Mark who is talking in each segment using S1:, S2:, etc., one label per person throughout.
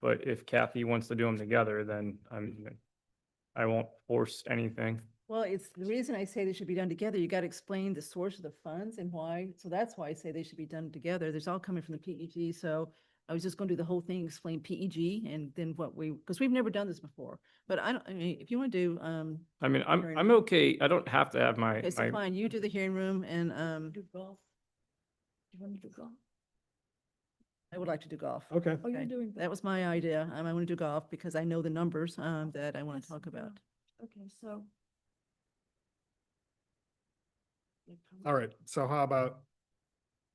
S1: But if Kathy wants to do them together, then I'm, I won't force anything.
S2: Well, it's, the reason I say they should be done together, you got to explain the source of the funds and why. So that's why I say they should be done together. There's all coming from the PEG. So I was just going to do the whole thing, explain PEG and then what we, because we've never done this before. But I don't, I mean, if you want to do, um,
S1: I mean, I'm,
S2: Fair
S1: I'm okay. I don't have to have my,
S2: okay, so
S1: my,
S2: fine, you do the hearing room and, um,
S3: Do golf? Do you want to do golf?
S2: I would like to do golf.
S4: Okay.
S3: Oh, you're
S2: Okay,
S3: doing.
S2: That
S3: golf.
S2: was my idea. Um, I want to do golf because I know the numbers, um, that I want
S3: Yes,
S2: to talk
S3: yeah.
S2: about.
S3: Okay, so.
S4: All right. So how about,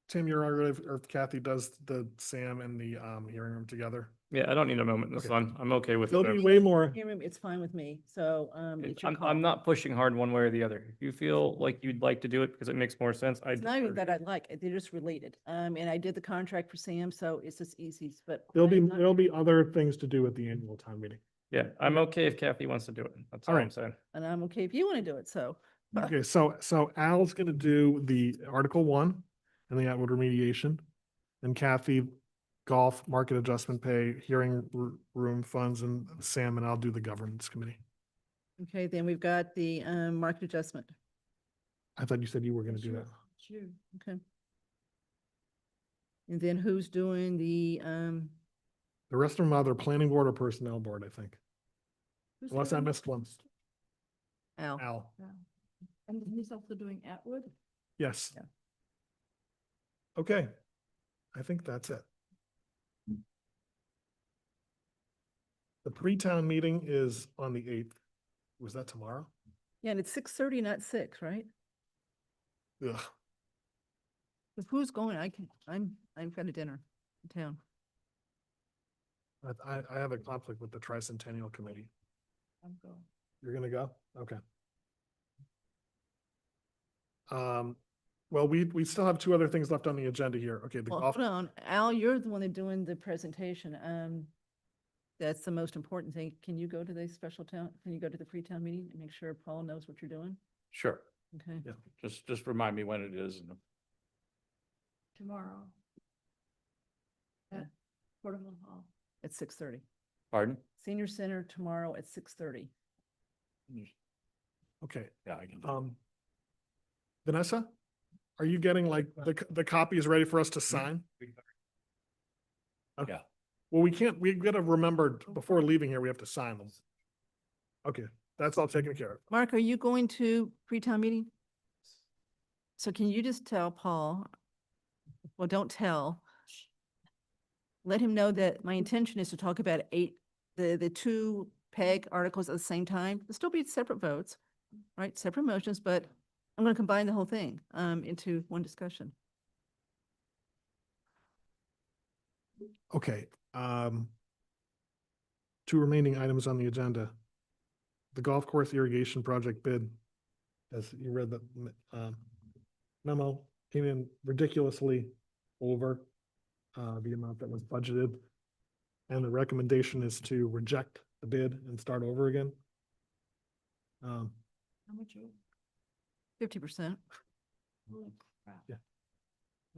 S4: Tim, you're all right if- or if Kathy does the Sam and the um hearing room together?
S1: yeah, I don't need a moment in the
S4: Okay.
S1: sun. I'm okay with
S4: There'll be
S1: it.
S4: way more.
S2: Hearing room, it's fine with me. So, um, it's your
S1: I'm,
S2: call.
S1: I'm not pushing hard one way or the other. If you feel like you'd like to do it because it makes more sense, I.
S2: It's not even
S1: defer.
S2: that I like, it, they're just related. Um, and I did the contract for Sam, so it's just easy, but.
S4: There'll
S2: I'm
S4: be,
S2: not-
S4: there'll be other things to do at the annual town meeting.
S1: Yeah, I'm okay if Kathy wants to do it. That's all
S4: All
S1: I'm
S4: right.
S1: saying.
S2: And I'm okay if you want to do it, so. But-
S4: Okay, so, so Al's gonna do the Article One and the Atwood remediation. And Kathy, golf, market adjustment pay, hearing r- room funds, and Sam and I'll do the governance committee.
S2: Okay, then we've got the, um, market adjustment.
S4: I thought you said you were gonna do that.
S3: Sure.
S2: Okay. And then who's doing the, um,
S4: The rest of them are either planning board or personnel board, I think, unless I missed one.
S2: Al?
S4: Al,
S3: And then he's also doing Atwood?
S4: yes.
S2: Yeah.
S4: Okay, I think that's it. The pre-town meeting is on the eighth. Was that tomorrow?
S2: Yeah, and it's six thirty, not six, right?
S4: Ugh.
S2: If who's going, I can, I'm, I'm going to dinner in town.
S4: I- I, I have a conflict with the tricentennial committee.
S3: I'm going.
S4: You're gonna go? Okay. Um, well, we, we still have two other things left on the agenda here. Okay, the
S2: Well,
S4: golf,
S2: hold on, Al, you're the one that's doing the presentation, um, that's the most important thing. Can you go to the special town, can you go to the pre-town meeting and make sure Paul knows what you're doing?
S5: Sure,
S2: Okay.
S4: Yeah.
S5: just, just remind me when it is and
S3: tomorrow.
S2: Yeah.
S3: At Portable Hall.
S2: At six thirty.
S5: pardon?
S2: Senior Center tomorrow at six thirty.
S4: okay,
S5: Yeah, I can.
S4: um. Vanessa, are you getting like, the, c- the copy is ready for us to sign? Okay.
S5: Yeah.
S4: Well, we can't, we gotta remember before leaving here, we have to sign them. Okay, that's all taken care of.
S2: Mark, are you going to pre-town meeting? So can you just tell Paul, well, don't tell. Let him know that my intention is to talk about eight, the, the two PEG articles at the same time. They'll still be separate votes, right? Separate motions, but I'm going to combine the whole thing um, into one discussion.
S4: Okay, um. Two remaining items on the agenda. The golf course irrigation project bid, as you read the m- um, memo, came in ridiculously over uh, the amount that was budgeted. And the recommendation is to reject the bid and start over again. Um,
S3: How much? you-
S2: Fifty percent.
S3: Holy crap.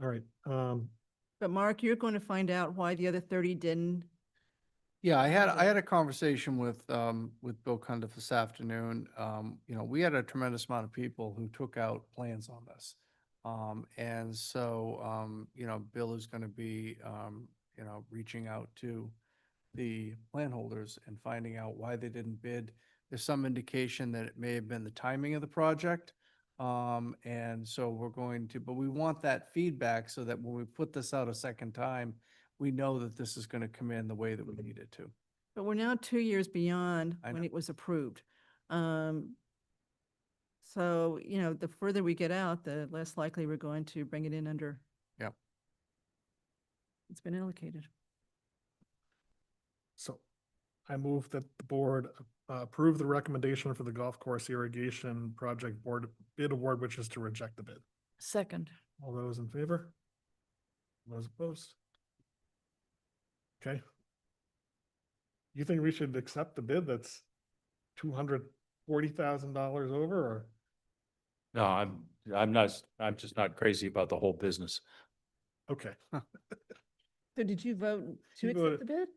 S4: all right, um,
S2: But Mark, you're going to find out why the other thirty didn't.
S6: Yeah, I had,
S2: Okay.
S6: I had a conversation with, um, with Bill Cunda this afternoon. Um, you know, we had a tremendous amount of people who took out plans on this. Um, and so, um, you know, Bill is gonna be, um, you know, reaching out to the plan holders and finding out why they didn't bid. There's some indication that it may have been the timing of the project. Um, and so we're going to, but we want that feedback so that when we put this out a second time, we know that this is going to come in the way that we need it to.
S2: But we're now two years beyond
S6: I
S2: when
S6: know.
S2: it was approved. Um, So, you know, the further we get out, the less likely we're going to bring it in under.
S6: Yep.
S2: It's been allocated.
S4: So I move that the board uh, approve the recommendation for the golf course irrigation project board bid award, which is to reject the bid.
S3: Second.
S4: All those in favor? Those opposed? Okay. You think we should accept the bid that's two hundred forty thousand dollars over or?
S5: No, I'm, I'm not, I'm just not crazy about the whole business.
S4: Okay,
S2: So did you vote to
S4: You voted-
S2: accept the bid?